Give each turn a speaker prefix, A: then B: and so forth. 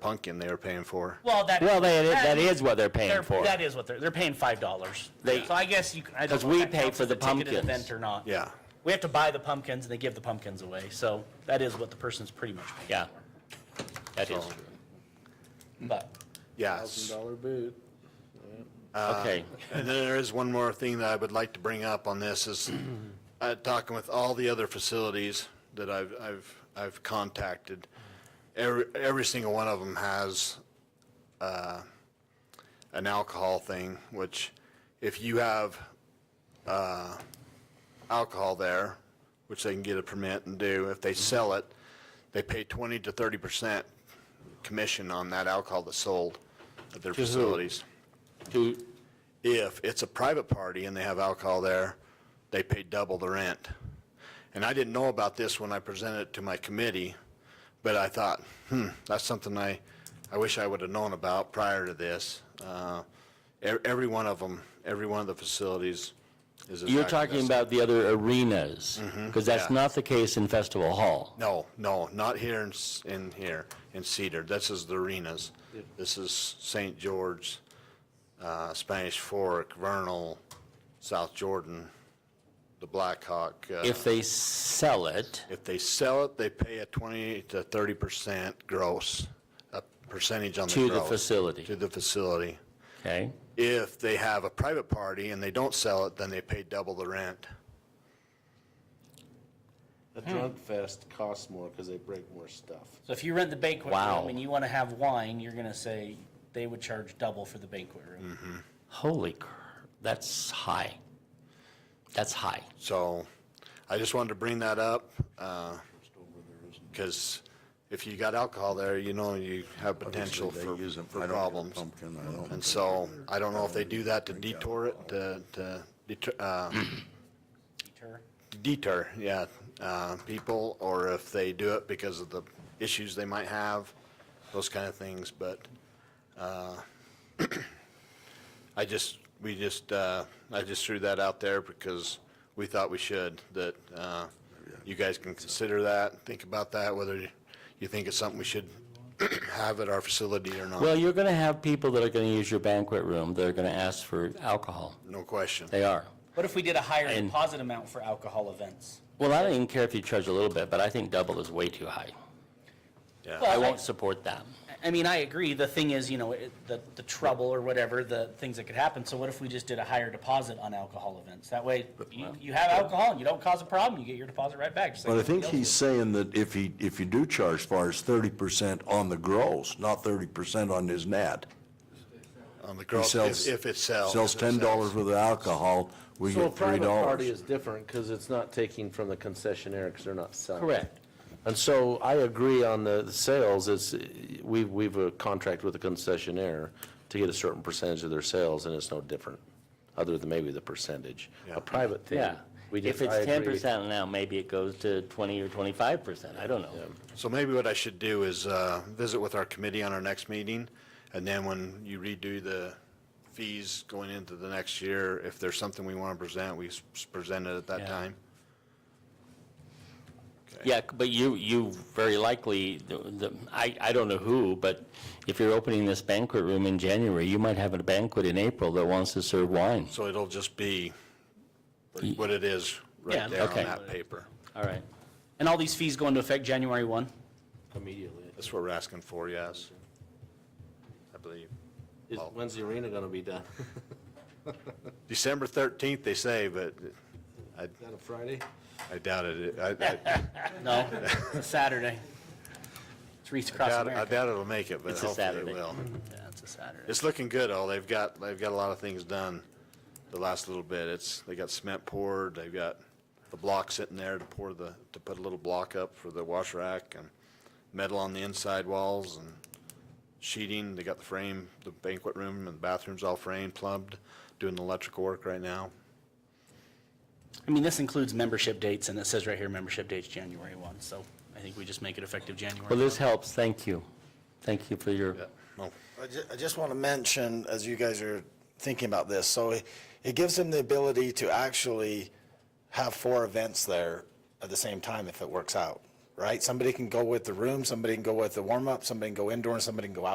A: pumpkin they were paying for.
B: Well, that.
C: Well, that, that is what they're
B: they're-
C: paying for.
B: That is what they're, they're paying five dollars.
C: They-
B: So I guess you, I don't know.
C: 'Cause
B: if
C: we
B: that
C: pay
B: counts
C: for
B: as
C: the
B: a ticketed
C: pumpkins.
B: Event or not.
A: Yeah.
B: We have to buy the pumpkins and they give the pumpkins away, so that is what the person's pretty much paying.
C: Yeah. That is,
B: But,
A: Yes.
D: boot.
A: uh,
C: okay.
A: And then there is one more thing that I would like to bring up on this is, uh, talking with all the other facilities that I've, I've, I've contacted, every, every single one of them has, uh, an alcohol thing, which if you have, uh, alcohol there, which they can get a permit and do, if they sell it, they pay twenty to thirty percent commission on that alcohol that's sold at their facilities
C: Who,
A: if it's a private party and they have alcohol there, they pay double the rent. And I didn't know about this when I presented it to my committee, but I thought, hmm, that's something I, I wish I would have known about prior to this. Uh, e- Every one of them, every one of the facilities is.
C: you're
A: attracted to
C: talking
A: this.
C: about the other arenas, because that's
A: Mm-hmm. yeah.
C: not the case in Festival Hall.
A: No, no, not here in, S- in here, in Cedar. This is the arenas. This is St. George, uh, Spanish Fork, Vernal, South Jordan, the Blackhawk. uh,
C: If they sell it,
A: If they sell it, they pay a 20 to 30% gross, a percentage on the
C: To
A: gross.
C: the facility.
A: To the facility.
C: okay?
A: If they have a private party and they don't sell it, then they pay double the rent.
D: The drunk fest costs more because they break more stuff.
B: so if you rent the banquet
C: Wow.
B: room and you want to have wine, you're going to say they would charge double for the banquet
C: Mm-hmm.
B: room.
C: Holy cr, that's high. That's high.
A: So I just wanted to bring that up, because if you got alcohol there, you know, you have potential
E: Obviously,
A: for
E: they use 'em. I
A: for
E: don't get a
A: problems.
E: pumpkin, uh, I don't
A: And
E: think
A: so
E: they're-
A: I don't know if they
E: don't
A: do that to detour it, to to deter, uh,
B: Deter.
A: deter, yeah, uh, people, or if they do it because of the issues they might have, those kind of things, but uh, I just, we just, uh, I just threw that out there because we thought we should, that uh, you guys can consider that, think about that, whether you think it's something we should have at our facility or not,
C: Well, you're going to have people that are going to use your banquet room that are going to ask for alcohol.
A: no question.
C: They are.
B: What if we did a higher
C: And-
B: deposit amount for alcohol events?
C: Well, I don't even care if you charge a little bit, but I think double is way too high. I
B: Well,
C: won't support that.
B: I mean, I agree. The thing is, you know, it- the, the trouble or whatever, the things that could happen. So what if we just did a higher deposit on alcohol events? That way, you, you have alcohol and you don't cause a problem, you get your deposit right back. just like
E: But I think
B: everybody
E: he's
B: else
E: saying that if he, if you do charge far, it's thirty percent on the gross, not thirty percent on his net.
A: On the
E: He
A: growth,
E: sells-
A: if if it sells.
E: Sells
A: if it
E: ten dollars worth of alcohol, we
D: So a
E: get three
D: private party
E: dollars.
D: is different because it's not taking from the concessionaire because they're not selling.
C: Correct.
D: And so I agree on the the sales, it's, uh, we, we've a contract with the concessionaire to get a certain percentage of their sales, and it's no different, other than maybe the percentage.
A: Yeah.
D: A private thing.
C: Yeah.
D: we
C: If
D: just- I
C: it's
D: agree.
C: ten percent now, maybe it goes to twenty or twenty-five percent. I don't know.
A: So maybe what I should do is uh, visit with our committee on our next meeting, and then when you redo the fees going into the next year, if there's something we want to present, we s- present it at that
C: Yeah.
A: time.
C: Yeah, but you, you very likely, the- the- I, I don't know who, but if you're opening this banquet room in January, you might have a banquet in April that wants to serve wine.
A: So it'll just be what it is
B: Yeah,
A: right there on
C: okay.
A: that paper.
C: All right.
B: does. And all these fees go into effect January one?
D: Immediately.
A: That's what we're asking for, yes. I believe.
D: Is-
A: Well-
D: When's the arena gonna be done?
A: December 13th, they say, but I
D: Is that a Friday?
A: I doubt it. I- I
B: No, it's a Saturday. It's Reefs
A: I
B: Across
A: doubt I
B: America.
A: doubt it'll make it, but
C: It's a
A: hopefully it
C: Saturday.
A: will.
B: Yeah, it's a Saturday.
A: It's looking good, all. They've got, they've got a lot of things done the last little bit. It's, they got cement poured, they've got the block sitting there to pour the, to put a little block up for the wash rack and metal on the inside walls and sheeting. They got the frame, the banquet room and bathrooms all framed, plumbed, doing the electrical work right now.
B: I mean, this includes membership dates and it says right here, membership dates January one, so I think we just make it effective January.
C: Well, this
B: 1.
C: helps. Thank you. Thank you for your,
A: Yeah, well,
F: I ju- I just want to mention, as you guys are thinking about this, so it it gives them the ability to actually have four events there at the same time if it works out, right? Somebody can go with the room, somebody can go with the warm-up, somebody can go indoor, and somebody can go